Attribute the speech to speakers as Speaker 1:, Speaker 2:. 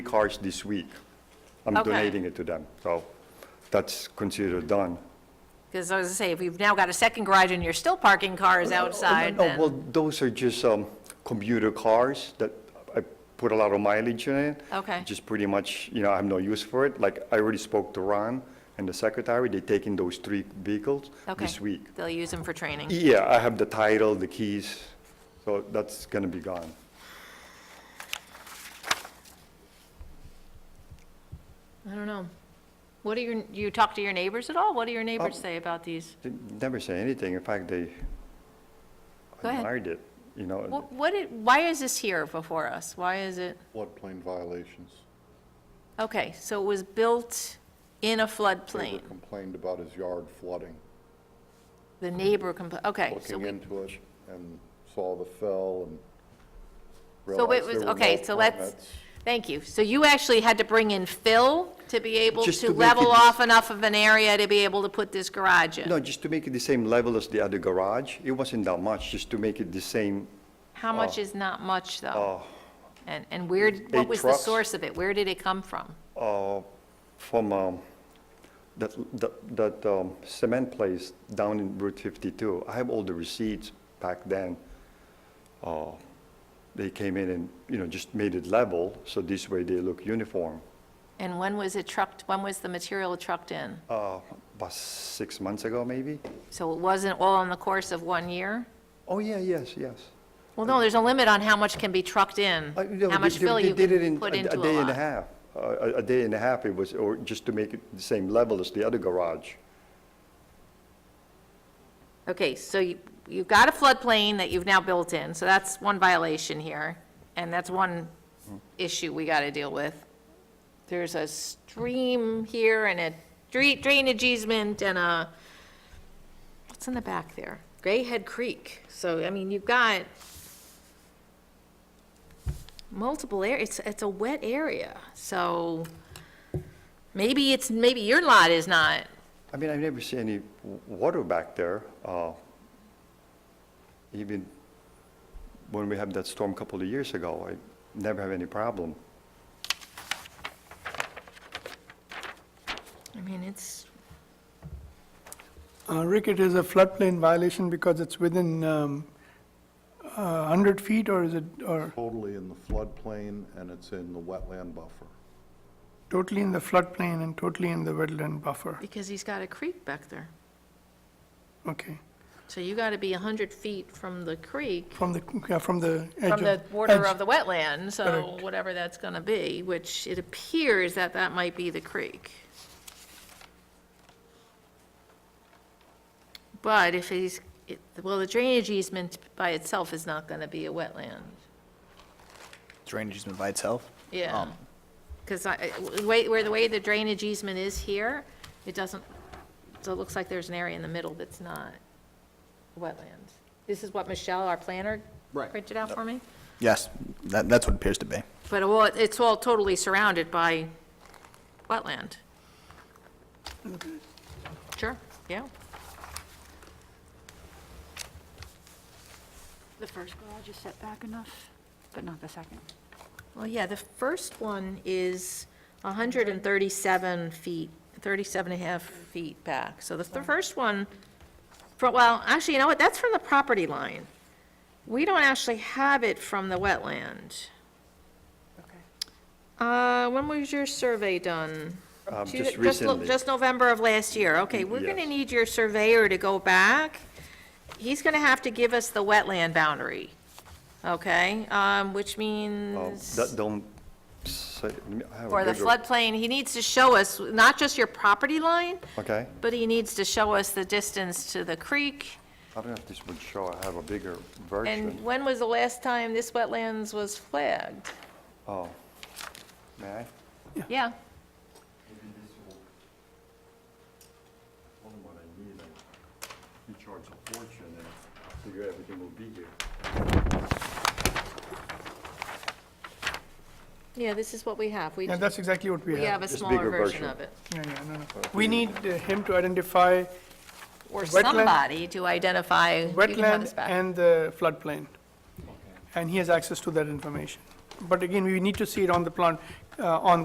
Speaker 1: cars this week. I'm
Speaker 2: Okay.
Speaker 1: donating it to them, so that's considered done.
Speaker 2: Because I was gonna say, if you've now got a second garage and you're still parking cars outside,
Speaker 1: No, well,
Speaker 2: then,
Speaker 1: those are just um, commuter cars that I put a lot of mileage in it.
Speaker 2: Okay.
Speaker 1: Just pretty much, you know, I have no use for it. Like, I already spoke to Ron and the secretary, they're taking those three vehicles
Speaker 2: okay.
Speaker 1: this week. E-
Speaker 2: They'll use them for training.
Speaker 1: Yeah, I have the title, the keys, so that's gonna be gone.
Speaker 2: I don't know. What do your, you talk to your neighbors at all? What do your neighbors
Speaker 1: Um,
Speaker 2: say about these?
Speaker 1: They never say anything, in fact, they
Speaker 2: Go ahead.
Speaker 1: admired it, you know. and-
Speaker 2: What, what, it- why is this here before us? Why is it?
Speaker 3: floodplain violations.
Speaker 2: Okay, so it was built in a
Speaker 3: Neighbor
Speaker 2: floodplain.
Speaker 3: complained about his yard flooding,
Speaker 2: The neighbor compl, okay. so
Speaker 3: looking
Speaker 2: we-
Speaker 3: into it and saw the fill and
Speaker 2: So it
Speaker 3: realized there
Speaker 2: was,
Speaker 3: were no
Speaker 2: okay, so let's,
Speaker 3: permits.
Speaker 2: thank you. So you actually had to bring in fill to be able
Speaker 1: Just
Speaker 2: to
Speaker 1: to make
Speaker 2: level
Speaker 1: it-
Speaker 2: off enough of an area to be able to put this garage in?
Speaker 1: No, just to make it the same level as the other garage, it wasn't that much, just to make it the same,
Speaker 2: How much
Speaker 1: Oh.
Speaker 2: is not much, though?
Speaker 1: uh,
Speaker 2: And, and where, what
Speaker 1: eight
Speaker 2: was the
Speaker 1: trucks.
Speaker 2: source of it? Where did it come from?
Speaker 1: uh, from, um, that, that, that um, cement place down in Route 52. I have all the receipts back then. Uh, They came in and, you know, just made it level, so this way they look uniform.
Speaker 2: And when was it trucked, when was the material trucked in?
Speaker 1: Uh, About six months ago, maybe?
Speaker 2: So it wasn't all in the course of one year?
Speaker 1: Oh, yeah, yes, yes.
Speaker 2: Well, no, there's a limit on how much can be trucked in,
Speaker 1: Uh, no,
Speaker 2: how much
Speaker 1: they- they-
Speaker 2: fill
Speaker 1: they
Speaker 2: you
Speaker 1: did it in
Speaker 2: can put
Speaker 1: a-
Speaker 2: into a
Speaker 1: A day and a
Speaker 2: lot.
Speaker 1: half, Uh, a a day and a half it was, or just to make it the same level as the other garage.
Speaker 2: Okay, so you, you've got a floodplain that you've now built in, so that's one violation here, and that's one issue we gotta deal with. There's a stream here and a dra- drainage easement and a, what's in the back there? Grayhead Creek, so, I mean, you've got multiple areas. it's, it's a wet area, so maybe it's, maybe your lot is not
Speaker 1: I mean, I never see any w- water back there. uh, Even when we had that storm a couple of years ago, I never have any problem.
Speaker 2: I mean, it's,
Speaker 4: Uh, Rick, it is a floodplain violation because it's within um, uh, 100 feet, or is it, or
Speaker 3: Totally in the floodplain and it's in the wetland buffer.
Speaker 4: totally in the floodplain and totally in the wetland buffer?
Speaker 2: because he's got a creek back there.
Speaker 4: Okay,
Speaker 2: So you gotta be a hundred feet from the creek,
Speaker 4: from the, yeah, from the edge of...
Speaker 2: from the border
Speaker 4: edge.
Speaker 2: of the wetland, so
Speaker 4: Correct.
Speaker 2: whatever that's gonna be, which it appears that that might be the creek. But if he's, it- well, the drainage easement by itself is not gonna be a wetland,
Speaker 5: drainage easement by itself.
Speaker 2: yeah.
Speaker 5: Um,
Speaker 2: Because I, I- way- where the way the drainage easement is here, it doesn't, so it looks like there's an area in the middle that's not wetlands. This is what Michelle, our planner,
Speaker 5: Right.
Speaker 2: printed out for me?
Speaker 5: Yes, that, that's what it appears to be.
Speaker 2: But all- it's all totally surrounded by wetland. Sure, yeah.
Speaker 6: The first garage is set back enough, but not the second.
Speaker 2: Well, yeah, the first one is 137 feet, 37 and a half feet back. So the th- first one, fro- well, actually, you know what, that's from the property line. We don't actually have it from the wetland.
Speaker 6: Okay.
Speaker 2: Uh, When was your survey done?
Speaker 1: Um,
Speaker 2: Two-
Speaker 1: Just
Speaker 2: lo-
Speaker 1: recently, Mm,
Speaker 2: Just November of last year, okay, we're gonna
Speaker 1: Yes.
Speaker 2: need your surveyor to go back. He's gonna have to give us the wetland boundary, okay? Um, which
Speaker 1: um,
Speaker 2: means.
Speaker 1: that don't say, I have a
Speaker 2: For the
Speaker 1: bigger-
Speaker 2: floodplain, he needs to show us not just your property line,
Speaker 1: Okay,
Speaker 2: but he needs to show us the distance to the creek.
Speaker 1: I don't know if this would show, I have a bigger
Speaker 2: And
Speaker 1: version.
Speaker 2: when was the last time this wetlands was flagged?
Speaker 1: Oh, may I?
Speaker 2: Yeah,
Speaker 1: Maybe this will, tell them what I need, and you charge a fortune, and I figure everything will be here.
Speaker 2: yeah, this is what we have. We,
Speaker 4: Yeah, that's exactly what we
Speaker 2: we have
Speaker 4: have.
Speaker 2: a
Speaker 1: Just
Speaker 2: smaller
Speaker 1: bigger
Speaker 2: version
Speaker 1: version.
Speaker 2: of it.
Speaker 4: Yeah, yeah, no, no. We need uh, him to identify
Speaker 2: Or
Speaker 4: Wetland-
Speaker 2: somebody to identify. you can have
Speaker 4: wetland
Speaker 2: this back.
Speaker 4: and the floodplain. And he has access to that information. But again, we need to see it on the plan. uh, on